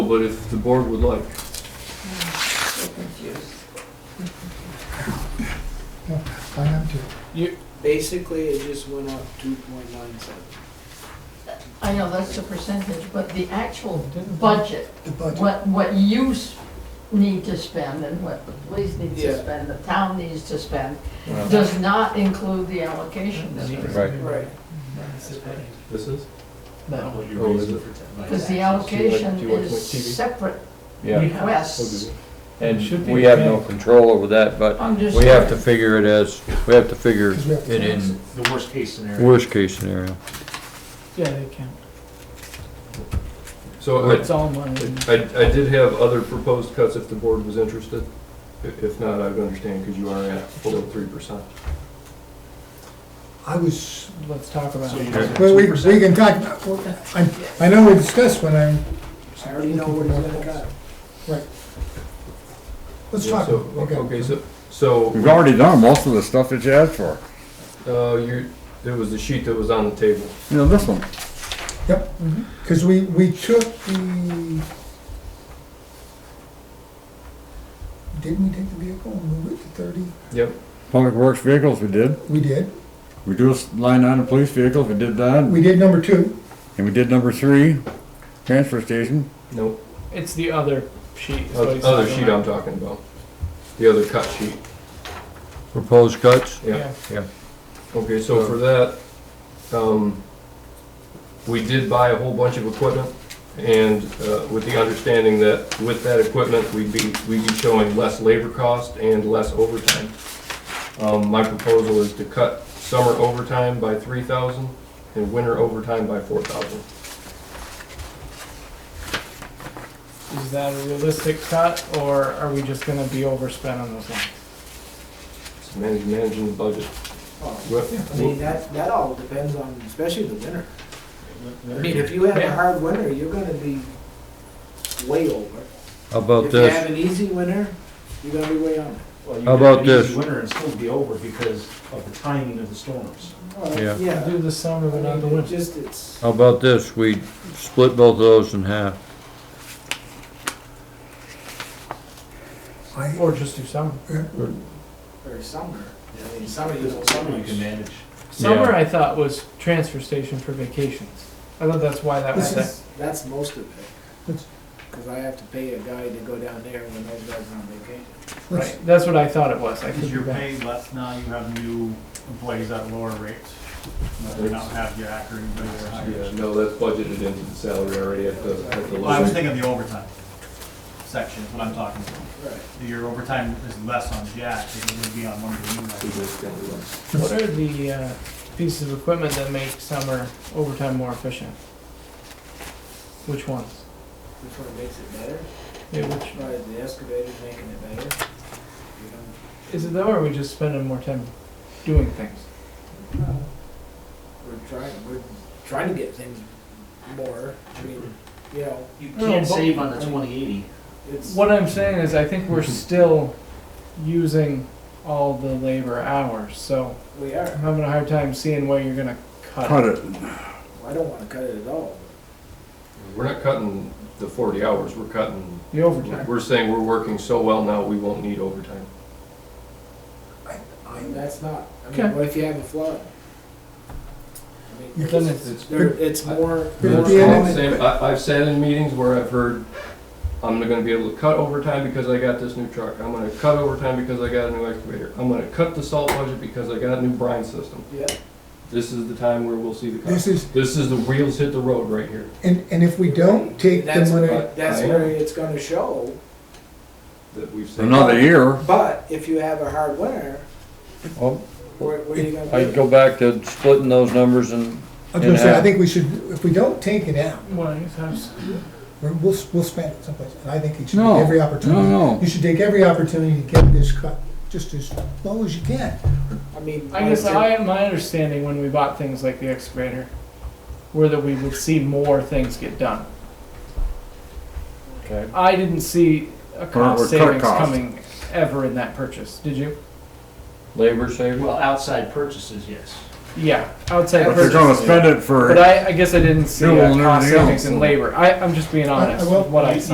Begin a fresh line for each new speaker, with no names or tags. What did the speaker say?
but if the board would like.
So confused.
I am too.
Basically, it just went up two point nine seven.
I know that's the percentage, but the actual budget,
oh, The budget,
what, what you s- need to spend and what the police need to
Yeah.
spend, the town needs to spend, does not include the allocation.
Right.
Right.
This is?
No.
you raised Oh, it
Because the
Do
allocation
you like- do you like
is
TV?
separate
Yeah,
requests.
and we have no control over that, but we have to figure it as, we have to figure
because we have
it
to tax it.
in
The worst case scenario.
worst case scenario.
Yeah, they can.
So I,
It's all money.
I I did have other proposed cuts if the board was interested. If if not, I would understand because you are at below three percent.
I was,
Let's talk about
So
it.
you guys-
well, we, we can talk, I, I know we discussed when I,
I already know what it's gonna cut.
let's talk. about it.
Okay, so, so
We've already done most of the stuff that you asked for.
Uh, you, there was the sheet that was on the table.
You know, this one.
Yep, because we, we took the, didn't we take the vehicle and move it to thirty?
Yep.
Public Works vehicles, we did.
We did,
We do a line item police vehicles, we did that.
we did number two,
And we did number three, transfer station.
No,
It's the other sheet. is what he's
other
talking
sheet I'm
about.
talking about. The other cut sheet.
Proposed cuts?
Yeah.
Yeah.
Okay, so for that, um, we did buy a whole bunch of equipment and, uh, with the understanding that with that equipment, we'd be, we'd be showing less labor cost and less overtime. Um, my proposal is to cut summer overtime by three thousand and winter overtime by four thousand.
Is that a realistic cut, or are we just gonna be overspent on those lines?
It's managing, managing the budget.
Well,
Well,
I mean, that, that all depends on, especially the winter. I mean, if you have a
Yeah.
hard winter, you're gonna be way over.
How about
If you have
this?
an easy winter, you're gonna be way under.
Well, you
How
could have
about
an easy
this?
Winter and still be over because of the timing of the storms.
Well,
Yeah.
Yeah.
Do the summer, but
I
not the
mean, it
winter.
just, it's,
How about this? We split both of those in half.
I,
Or just do summer.
or summer, I mean, summer, you know, summer you
You can
can.
manage.
Summer, I thought, was transfer station for vacations. I thought that's why that was there.
That's, that's most of it.
That's-
Cause I have to pay a guy to go down there when those guys are on vacation.
let's,
Right, that's what I thought it was. I could
Because
be
you're
back.
paying less now, you have new employees at lower rates. You don't have your hacker anybody at
Yeah,
higher.
no, that's budgeted into the salary already at the, at the
Well, I was
lowest.
thinking the overtime section is what I'm talking about.
Right.
Your overtime is less on Jack than it would be on one of the new
What
guys.
are the uh, pieces of equipment that make summer overtime more efficient? Which ones?
Which one makes it better?
Yeah, which,
Probably the excavator's making it better. You know,
is it though, or are we just spending more time doing things?
We're trying, we're trying to get things more, I mean, you know,
You
No,
can't
but-
save on the twenty eighty.
it's,
What I'm saying is, I think we're still using all the labor hours, so
we are.
I'm having a hard time seeing where you're gonna cut
Cut
it.
it.
I don't wanna cut it at all.
We're not cutting the forty hours, we're cutting,
The overtime.
we're saying we're working so well now, we won't need overtime.
I mean, that's not, I
Okay.
mean, what if you have a flood? I mean,
You
Then it's,
there, it's more.
But
more-
at the end of
Same- I, I've sat in meetings where I've heard, I'm not gonna be able to cut overtime because I got this new truck, I'm gonna cut overtime because I got a new excavator, I'm gonna cut the salt budget because I got a new brine system.
Yeah,
This is the time where we'll see the
this
cuts.
is,
This is the wheels hit the road right here.
and, and if we don't take the
that's
money,
where, that's
I-
where it's gonna show,
That we've seen.
Another year.
but if you have a hard winter,
Well,
where, where are you gonna
I'd
do?
Oh, go back to splitting those numbers and
I was gonna say, I
Yeah.
think we should, if we don't take it out,
one of these times.
we're- we'll, we'll spend it someplace, and I think you should
No,
take every
no,
opportunity.
no.
You should take every opportunity to get this cut, just as low as you can.
I mean.
I guess
like-
I, my understanding when we bought things like the excavator, were that we would see more things get done.
Okay.
I didn't see a cost
or cut
savings
cost.
coming ever in that purchase, did you?
labor savings.
Well, outside purchases, yes.
Yeah, outside
But
purchase.
they're gonna spend it for.
But I, I guess I didn't see
Fuel
a
and
cost
everything
savings
else,
in
so-
labor. I, I'm just being
I- I
honest
will-
with what I
you-
saw.